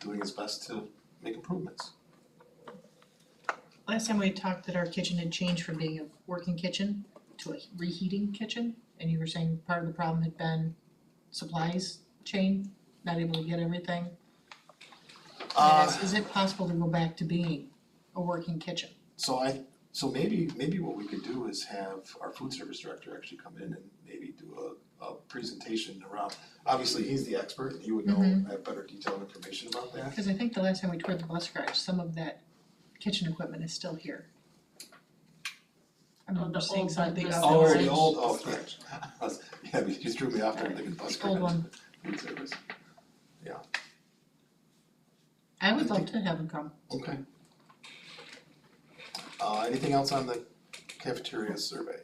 doing his best to make improvements. Last time we had talked that our kitchen had changed from being a working kitchen to a reheating kitchen, and you were saying part of the problem had been supplies chain, not able to get everything. Uh, And is, is it possible to go back to being a working kitchen? So I, so maybe, maybe what we could do is have our food service director actually come in and maybe do a, a presentation around, obviously, he's the expert, and he would know, Mhm. have better detailed information about that. Cause I think the last time we toured the bus garage, some of that kitchen equipment is still here. I Oh, remember the seeing old some big bus- oven Oh, the range. old, oh, yeah, yeah, you just drew me off there thinking bus Old garage, one. food service, I would love to have them come. okay. Uh, anything else on the cafeteria survey?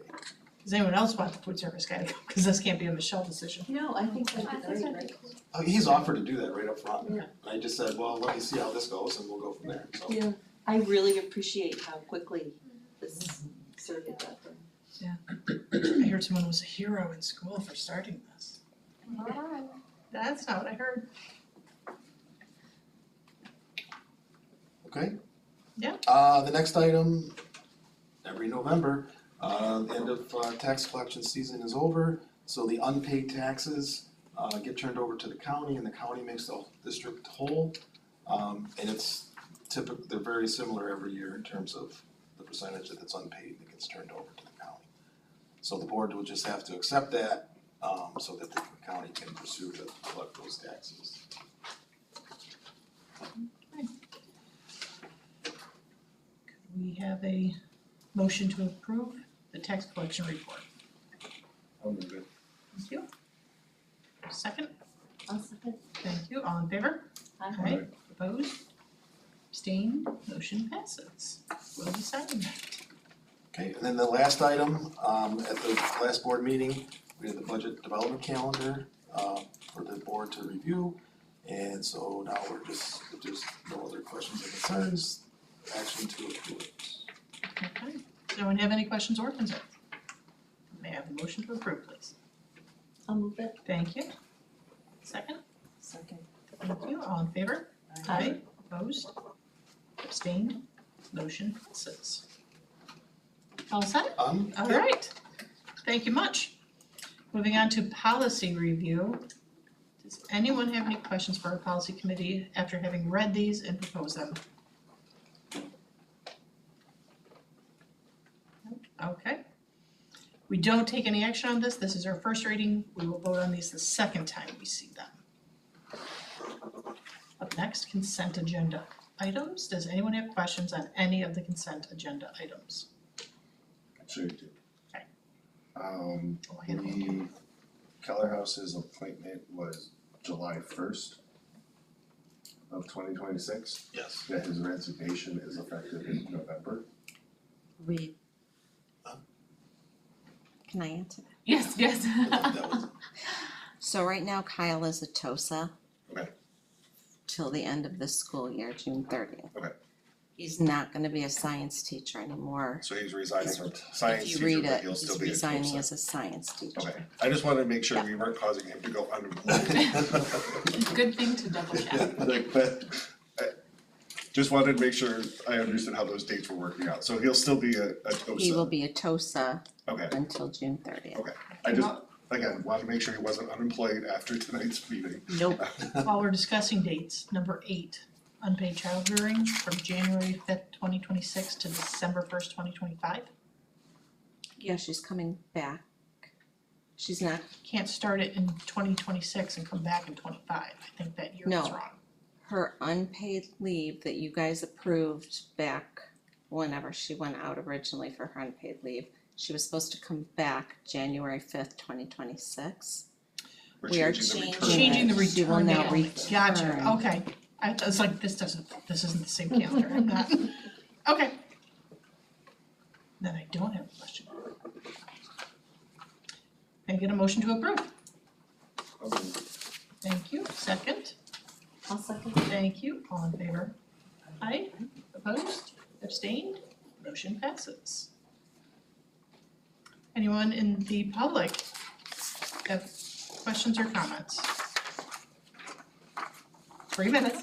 Does anyone else want the food service guy to come? Cause this can't be a Michelle decision. No, I think I that'd be think great, that'd Uh, he's offered to do that right up front, and Yeah. I just said, well, let me see how this goes, and we'll go from there, so. Yeah, I really appreciate how quickly this survey got done. I heard someone was a hero in school for starting this. Alright. That's not what I heard. Okay? Yeah. Uh, the next item, every November, uh, the end of uh, tax collection season is over, so the unpaid taxes uh, get turned over to the county and the county makes the district whole. Um, and it's typical, they're very similar every year in terms of the percentage that's unpaid that gets turned over to the county. So the board will just have to accept that, um, so that the county can pursue to collect those taxes. We have a motion to approve the tax collection report. I'll move it. Thank you. Second, I'll second. thank you, all in favor? Aye. Alright, opposed? Abstained, motion passes. We'll be signing that. Okay, and then the last item, um, at the last board meeting, we had the budget development calendar, uh, for the board to review. And so now we're just, if there's no other questions or concerns, action to approve it. Okay, does anyone have any questions or concerns? May I have a motion to approve, please? I'll move it. Thank you. Second, Second. thank you, all in favor? Aye, opposed, abstained, motion passes. All set? Um, All right, thank you much. Moving on to policy review. Does anyone have any questions for our policy committee after having read these and proposed them? Okay. We don't take any action on this, this is our first reading, we will vote on these the second time we see them. Up next, consent agenda items. Does anyone have questions on any of the consent agenda items? Sure you do. Okay. Um, Oh, I had one. the Keller House's appointment was July first of twenty twenty-six, yes. that his resignation is effective in November. We. Huh? Can I answer? Yes, yes. I think that was, So right now Kyle is a TOSA. Okay. Till the end of the school year, June thirtieth. Okay. He's not gonna be a science teacher anymore. So he's resigning He's- from science If you teacher, read but it, he'll still he's be a resigning TOSA. as a science teacher. Okay, I just wanted to make sure we weren't causing him to go unemployed. Good thing to double check. Like, but, I just wanted to make sure I understood how those dates were working out, so he'll still be a, a TOSA. He will be a TOSA Okay, until June thirtieth. Okay. I just, again, wanted to make sure he wasn't unemployed after tonight's meeting. Nope, While we're discussing dates, number eight, unpaid child rearing from January fifth, twenty twenty-six to December first, twenty twenty-five. yeah, she's coming back. She's not, Can't start it in twenty twenty-six and come back in twenty-five. I think that year was No. wrong. her unpaid leave that you guys approved back whenever she went out originally for her unpaid leave. She was supposed to come back January fifth, twenty twenty-six. We're We are changing the return Correct. Changing the She will return now date, gotcha, return. okay. I I was like, this doesn't, this isn't the same calendar, I'm not, okay. Then I don't have a question. Can I get a motion to approve? Okay. Thank you, second, I'll second. thank you, all in favor? Aye, opposed, abstained, motion passes. Anyone in the public have questions or comments? Three minutes.